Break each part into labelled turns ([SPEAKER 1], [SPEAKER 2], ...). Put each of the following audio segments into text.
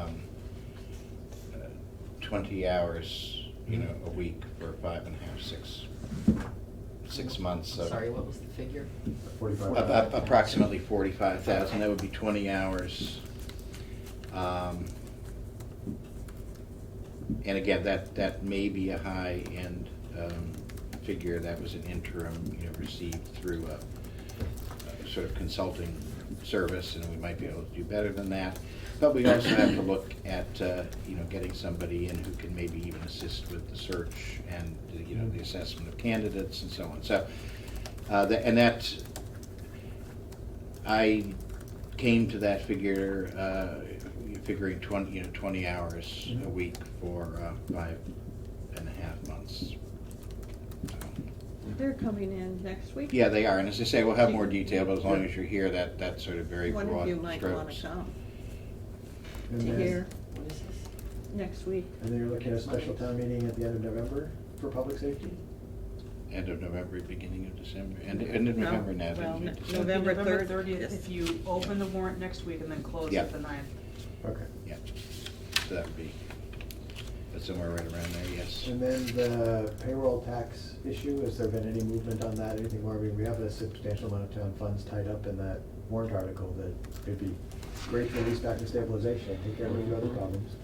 [SPEAKER 1] um, uh, twenty hours, you know, a week for five and a half, six, six months, so.
[SPEAKER 2] Sorry, what was the figure?
[SPEAKER 1] a-
[SPEAKER 3] Forty-five.
[SPEAKER 1] a- Approximately forty-five thousand, that would be twenty hours. Um, And again, that, that may be a high-end um, figure, that was an interim, you know, received through a a sort of consulting service, and we might be able to do better than that. But we also have to look at, uh, you know, getting somebody in who can maybe even assist with the search and, you know, the assessment of candidates and so on. So, uh, tha- and that, I came to that figure, uh, figuring twenty, you know, twenty hours
[SPEAKER 4] Mm-hmm.
[SPEAKER 1] a week for uh, five and a half months.
[SPEAKER 5] They're coming in next week.
[SPEAKER 1] Yeah, they are, and as I say, we'll have more detail, but as long as you're here, that, that's sort of very broad
[SPEAKER 5] One
[SPEAKER 1] strokes.
[SPEAKER 5] of you might wanna come to
[SPEAKER 3] And
[SPEAKER 5] hear
[SPEAKER 3] then,
[SPEAKER 2] What is this?
[SPEAKER 5] next week.
[SPEAKER 3] and then you're looking at a special town meeting at the end of November for public safety?
[SPEAKER 1] End of November, beginning of December, end, end of November now,
[SPEAKER 6] Well,
[SPEAKER 1] didn't
[SPEAKER 6] no-
[SPEAKER 1] we?
[SPEAKER 5] no-
[SPEAKER 1] December?
[SPEAKER 5] November
[SPEAKER 6] November
[SPEAKER 5] third.
[SPEAKER 6] thirtieth, if you open the warrant next week and then close
[SPEAKER 1] Yeah.
[SPEAKER 6] it the ninth.
[SPEAKER 3] Okay.
[SPEAKER 1] Yeah, so that would be, that's somewhere right around there, yes.
[SPEAKER 3] And then the payroll tax issue, has there been any movement on that, anything more? I mean, we have a substantial amount of town funds tied up in that warrant article that it'd be great for these back to stabilization, and take care of a few other problems.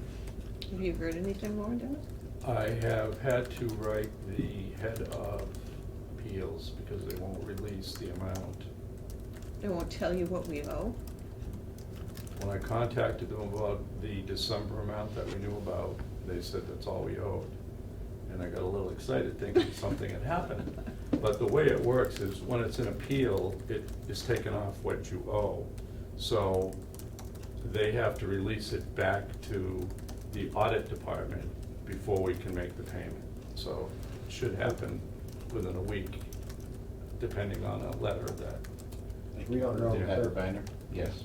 [SPEAKER 5] Have you heard anything more, Dennis?
[SPEAKER 4] I have had to write the head of appeals because they won't release the amount.
[SPEAKER 5] They won't tell you what we owe.
[SPEAKER 4] When I contacted them about the December amount that we knew about, they said that's all we owed. And I got a little excited thinking something had happened. But the way it works is when it's an appeal, it is taken off what you owe. So they have to release it back to the audit department before we can make the payment. So it should happen within a week, depending on a letter that,
[SPEAKER 1] Thank
[SPEAKER 3] We
[SPEAKER 1] you.
[SPEAKER 3] don't know,
[SPEAKER 1] Pat
[SPEAKER 3] but-
[SPEAKER 1] Urbiner? yes.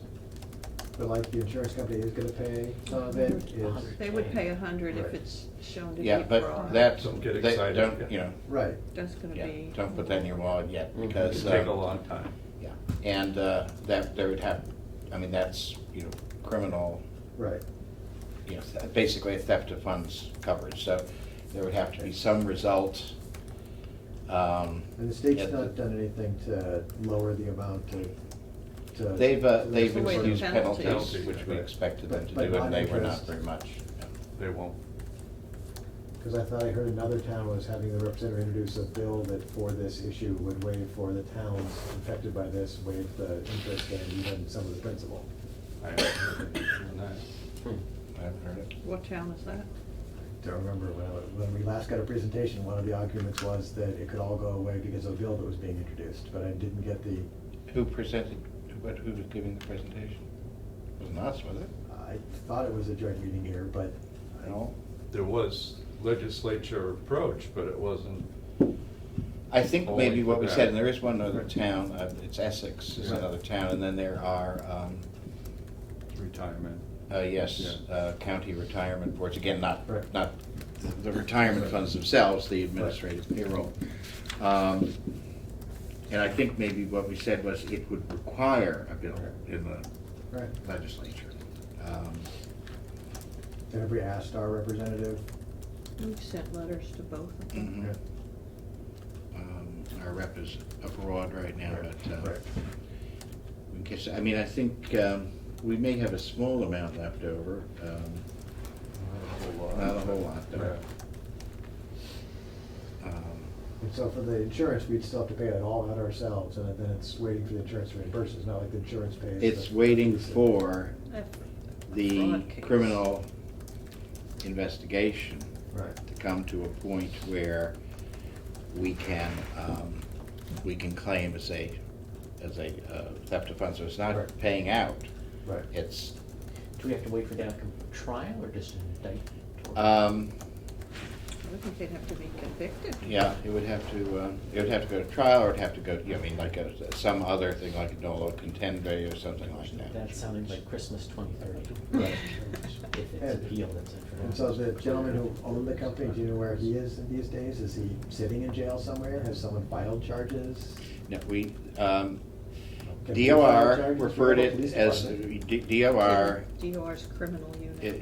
[SPEAKER 3] But like, the insurance company is gonna pay some of it, is,
[SPEAKER 5] They would pay a hundred if
[SPEAKER 4] Right.
[SPEAKER 5] it's shown to be
[SPEAKER 1] Yeah,
[SPEAKER 5] fraud.
[SPEAKER 1] but that's,
[SPEAKER 4] Don't get
[SPEAKER 1] they,
[SPEAKER 4] excited,
[SPEAKER 1] don't,
[SPEAKER 4] yeah.
[SPEAKER 1] you know,
[SPEAKER 3] right,
[SPEAKER 5] That's gonna
[SPEAKER 1] yeah,
[SPEAKER 5] be.
[SPEAKER 1] don't put that in your wallet yet,
[SPEAKER 3] Mhm.
[SPEAKER 4] it
[SPEAKER 1] because.
[SPEAKER 4] could take
[SPEAKER 1] uh,
[SPEAKER 4] a long time.
[SPEAKER 1] Yeah, and uh, that, there would have, I mean, that's, you know, criminal,
[SPEAKER 3] right.
[SPEAKER 1] you know, th- basically a theft of funds coverage, so there would have to be some result. um,
[SPEAKER 3] And the state's
[SPEAKER 1] at
[SPEAKER 3] not uh, done anything to lower the amount to, to.
[SPEAKER 1] They've, uh, they've
[SPEAKER 5] Away the
[SPEAKER 1] introduced
[SPEAKER 5] penalties.
[SPEAKER 1] penalties, which we
[SPEAKER 4] Right.
[SPEAKER 1] expected them to
[SPEAKER 3] But-
[SPEAKER 1] do,
[SPEAKER 3] but
[SPEAKER 1] and they were not
[SPEAKER 3] non-interest-
[SPEAKER 1] very much.
[SPEAKER 4] They won't.
[SPEAKER 3] Because I thought I heard another town was having the representative introduce a bill that for this issue would waive for the towns affected by this, waive the interest and even some of the principal.
[SPEAKER 4] I haven't heard anything on that.
[SPEAKER 1] I haven't heard it.
[SPEAKER 5] What town is that?
[SPEAKER 3] Don't remember when, I- when we last got a presentation, one of the arguments was that it could all go away because of a bill that was being introduced, but I didn't get the,
[SPEAKER 1] Who presented, what, who was giving the presentation? Wasn't us, was it?
[SPEAKER 3] I thought it was a joint meeting here, but I don't.
[SPEAKER 1] No.
[SPEAKER 4] There was legislature approach, but it wasn't,
[SPEAKER 1] I think
[SPEAKER 4] Oh,
[SPEAKER 1] maybe
[SPEAKER 4] we
[SPEAKER 1] what we
[SPEAKER 4] forgot.
[SPEAKER 1] said, and there is one other town, uh, it's Essex is
[SPEAKER 4] Yeah.
[SPEAKER 1] another town, and then there are, um,
[SPEAKER 4] retirement.
[SPEAKER 1] Uh, yes,
[SPEAKER 4] Yeah.
[SPEAKER 1] uh, county retirement boards, again, not,
[SPEAKER 3] Right.
[SPEAKER 1] not the- the retirement funds themselves, the administrative payroll. Um, And I think maybe what we said was it would require a bill in the
[SPEAKER 3] Right.
[SPEAKER 1] legislature. Um,
[SPEAKER 3] Have we asked our representative?
[SPEAKER 5] We've sent letters to both of them.
[SPEAKER 1] mhm. Um, Our rep is abroad right now,
[SPEAKER 3] Right,
[SPEAKER 1] but, uh,
[SPEAKER 3] right.
[SPEAKER 1] I guess, I mean, I think um, we may have a small amount left over. um, Not a whole lot, though. um,
[SPEAKER 3] And so for the insurance, we'd still have to pay it all out ourselves, and then it's waiting for the insurance to reimburse, it's not like the insurance pays.
[SPEAKER 1] It's
[SPEAKER 3] the-
[SPEAKER 1] waiting for the
[SPEAKER 5] Fraud case.
[SPEAKER 1] criminal investigation
[SPEAKER 3] Right.
[SPEAKER 1] to come to a point where we can, um, we can claim as a, as a uh, theft of funds, so it's not
[SPEAKER 3] Right.
[SPEAKER 1] paying out.
[SPEAKER 3] Right.
[SPEAKER 1] It's,
[SPEAKER 7] Do we have to wait for the outcome of trial or just an indictment? or-
[SPEAKER 1] um,
[SPEAKER 5] I would think they'd have to be convicted.
[SPEAKER 1] yeah, it would have to, uh, it would have to go to trial, or it'd have to go, I mean, like a, some other thing, like a dolo contendere or something like that.
[SPEAKER 7] That sounded like Christmas twenty thirty.
[SPEAKER 3] Right.
[SPEAKER 7] If it's
[SPEAKER 3] And-
[SPEAKER 7] appealed, et cetera.
[SPEAKER 3] And so the gentleman who owned the company, do you know where he is these days? Is he sitting in jail somewhere? Has someone filed charges?
[SPEAKER 1] No, we, um,
[SPEAKER 3] Can we file
[SPEAKER 1] DOR
[SPEAKER 3] charges for
[SPEAKER 1] referred
[SPEAKER 3] the
[SPEAKER 1] it
[SPEAKER 3] police
[SPEAKER 1] as,
[SPEAKER 3] department?
[SPEAKER 1] D- DOR
[SPEAKER 5] DOR's criminal unit.
[SPEAKER 1] It-